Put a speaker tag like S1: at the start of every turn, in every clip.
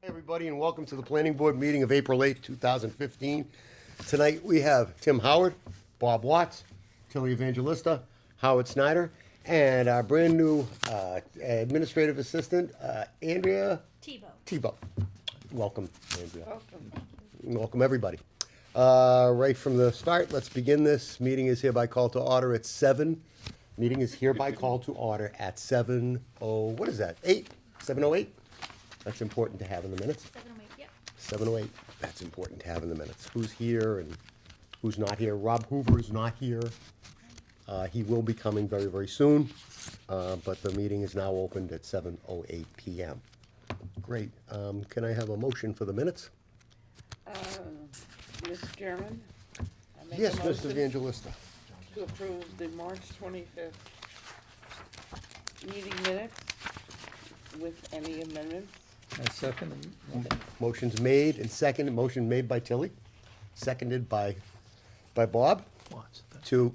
S1: Hey, everybody, and welcome to the planning board meeting of April 8th, 2015. Tonight, we have Tim Howard, Bob Watts, Tilly Evangelista, Howard Snyder, and our brand-new uh, administrative assistant, uh, Andrea
S2: Tebow.
S1: Tebow. Welcome, Andrea. Welcome. Welcome, everybody. Uh, Right from the start, let's begin this. Meeting is hereby called to order at seven. Meeting is hereby called to order at seven oh, what is that, eight? Seven oh eight? That's important to have in the minutes.
S2: Seven oh eight, yep.
S1: Seven oh eight, that's important to have in the minutes. Who's here and who's not here? Rob Hoover is not here. Uh, He will be coming very, very soon, uh, but the meeting is now opened at seven oh eight PM. Great. Um, Can I have a motion for the minutes?
S3: Mr. Chairman? I make a
S1: Yes, Mr.
S3: motion
S1: Evangelista.
S3: To approve the March twenty-fifth meeting minutes with any amendments.
S4: I second it.
S1: Motion's made and seconded, motion made by Tilly, seconded by, by Bob
S4: Watts.
S1: to,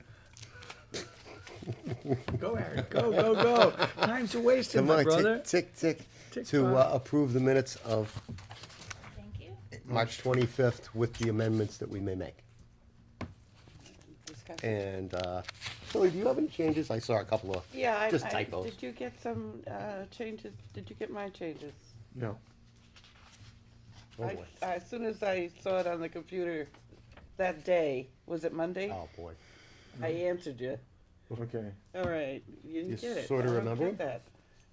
S4: Go, Aaron, go, go, go. Time's a wasted,
S1: come
S4: my
S1: on,
S4: brother.
S1: tick, tick, tick,
S4: Tick
S1: to uh,
S4: tock.
S1: approve the minutes of
S2: Thank you.
S1: March 25th with the amendments that we may make.
S3: Discuss-
S1: And, uh, Tilly, do you have any changes? I saw a couple of,
S3: Yeah, I,
S1: just
S3: I,
S1: typos.
S3: did you get some, uh, changes, did you get my changes?
S4: No.
S1: Oh,
S3: I-
S1: boy.
S3: I- As soon as I saw it on the computer that day, was it Monday?
S1: Oh, boy.
S3: I answered you.
S4: Okay.
S3: All right, you
S1: You
S3: didn't get it. I
S1: sorta
S3: don't
S1: remember
S3: get
S1: it?
S3: that.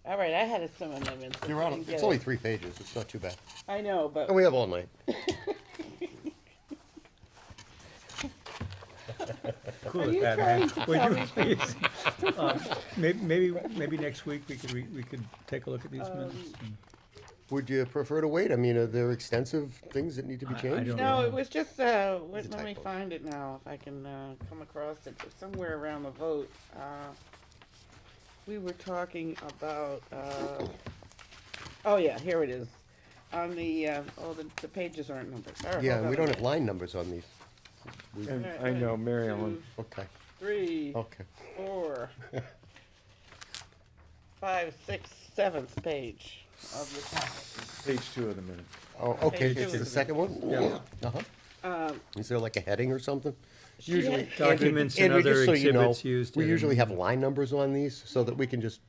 S3: All right, I had some amendments. I
S1: You're on,
S3: didn't get
S1: it's
S3: it.
S1: only three pages, it's not too bad.
S3: I know, but.
S1: And we have all night.
S3: Are
S4: Cool
S3: you
S4: it,
S3: trying
S4: Pat.
S3: to
S4: Would
S3: tell
S4: you
S3: me
S4: please? Um, may- Maybe, maybe next week we could, re- we could take a look at these
S1: Um,
S4: minutes. and-
S1: Would you prefer to wait? I mean, are there extensive things that need to be
S4: I- I
S1: changed?
S4: don't-
S3: No, it was just, uh,
S1: It's
S3: wait,
S1: a
S3: let me
S1: typo.
S3: find it now, if I can, uh, come across it, It's somewhere around the vote, uh, we were talking about, uh, oh yeah, here it is, on the, uh, oh, the, the pages aren't numbered, all right.
S1: Yeah,
S3: hold
S1: and we
S3: on a
S1: don't have
S3: minute.
S1: line numbers on these.
S5: And
S3: Alright,
S5: I
S3: one,
S5: know, Mary Ellen.
S3: two,
S1: Okay,
S3: Three,
S1: okay.
S3: four, five, six, seventh page of the packet.
S5: Page two of the minute.
S1: Oh, okay,
S3: two
S1: it's the
S3: is-
S1: second one?
S4: Yeah.
S1: Uh-huh.
S3: Um,
S1: Is there like a heading or something?
S3: she had-
S4: Documents and
S1: Andrew, just
S4: other
S1: so you know,
S4: exhibits used.
S1: We
S4: in-
S1: usually have line numbers on these so that we can just,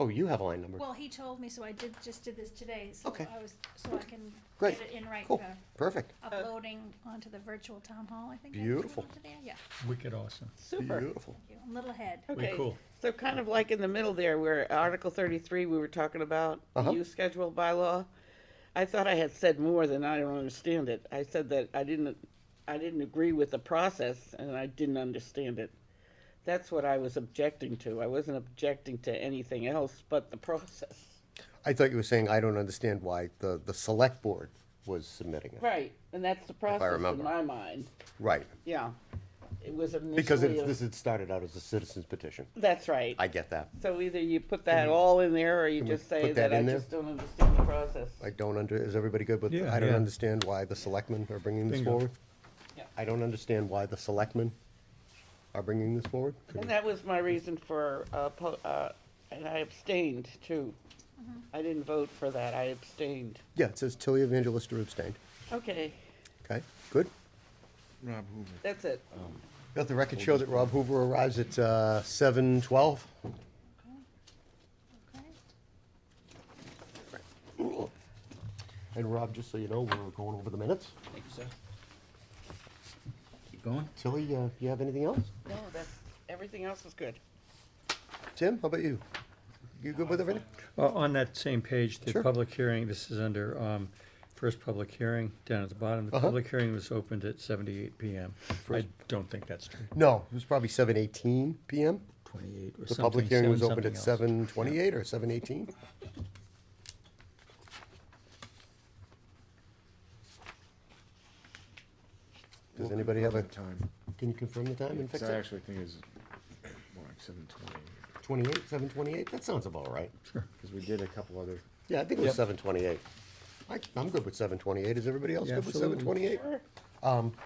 S1: oh, you have a line number.
S2: Well, he told me, so I did, just did this today, so
S1: Okay.
S2: I was, so I can
S1: Great.
S2: get it in right
S1: Cool,
S2: for
S3: uh,
S1: perfect.
S2: uploading onto the virtual town hall, I think. I put it
S1: Beautiful.
S2: onto there. Yeah,
S4: Wicked awesome.
S3: Super.
S1: Beautiful.
S2: thank you. I'm a little ahead.
S4: Way
S3: Okay,
S4: cool.
S3: so kind of like in the middle there, where Article thirty-three, we were talking about
S1: Uh-huh.
S3: the use schedule bylaw. I thought I had said more than I don't understand it. I said that I didn't, I didn't agree with the process and I didn't understand it. That's what I was objecting to. I wasn't objecting to anything else but the process.
S1: I thought you were saying I don't understand why the, the select board was submitting it.
S3: Right, and that's the process
S1: remember.
S3: in my mind.
S1: Right,
S3: Yeah. It was
S1: because
S3: initially,
S1: it-
S3: a-
S1: this had started out as a citizen's petition.
S3: that's right.
S1: I get that.
S3: So either you put that all in there or you
S1: can we
S3: just say
S1: put that
S3: that I
S1: in there?
S3: just don't understand the process.
S1: I don't under, is everybody good with,
S4: Yeah,
S1: I don't
S4: yeah.
S1: understand why the selectmen are bringing this
S4: Bingo.
S1: forward?
S3: Yeah.
S1: I don't understand why the selectmen are bringing this forward?
S3: And that was my reason for, uh, po- uh, and I abstained too. I didn't vote for that, I abstained.
S1: Yeah, it says Tilly Evangelista abstained.
S3: Okay,
S1: Okay, good.
S5: Rob Hoover.
S3: that's it.
S1: Let the record show that Rob Hoover arrives at uh, 7:12.
S2: Okay.
S1: And Rob, just so you know, we're going over the minutes.
S4: Thank you, sir.
S6: Keep going.
S1: Tilly, uh, you have anything else?
S3: No, that's, everything else was good.
S1: Tim, how about you? You good with everything?
S4: Uh, On that same page, the
S1: Sure.
S4: public hearing, this is under um, first public hearing, down at the bottom. The
S1: Uh-huh.
S4: public hearing was opened at 78 PM. I don't think that's true.
S1: No, it was probably 7:18 PM.
S4: 28 or
S1: The
S4: something.
S1: public hearing was
S4: seven
S1: opened at
S4: something else.
S1: 7:28 or 7:18. Does
S5: We'll
S1: anybody have a,
S5: confirm the Time.
S1: can you confirm the time and fix
S5: Because I
S1: it?
S5: actually think it's more like seven twenty,
S1: 28, 7:28? That sounds about right.
S5: because we did a couple other,
S1: Yeah, I think it was seven twenty-eight. I, I'm good with seven twenty-eight. Is everybody else
S4: Yeah,
S1: good with seven
S4: absolutely.
S1: twenty-eight?
S3: Sure.
S1: Um,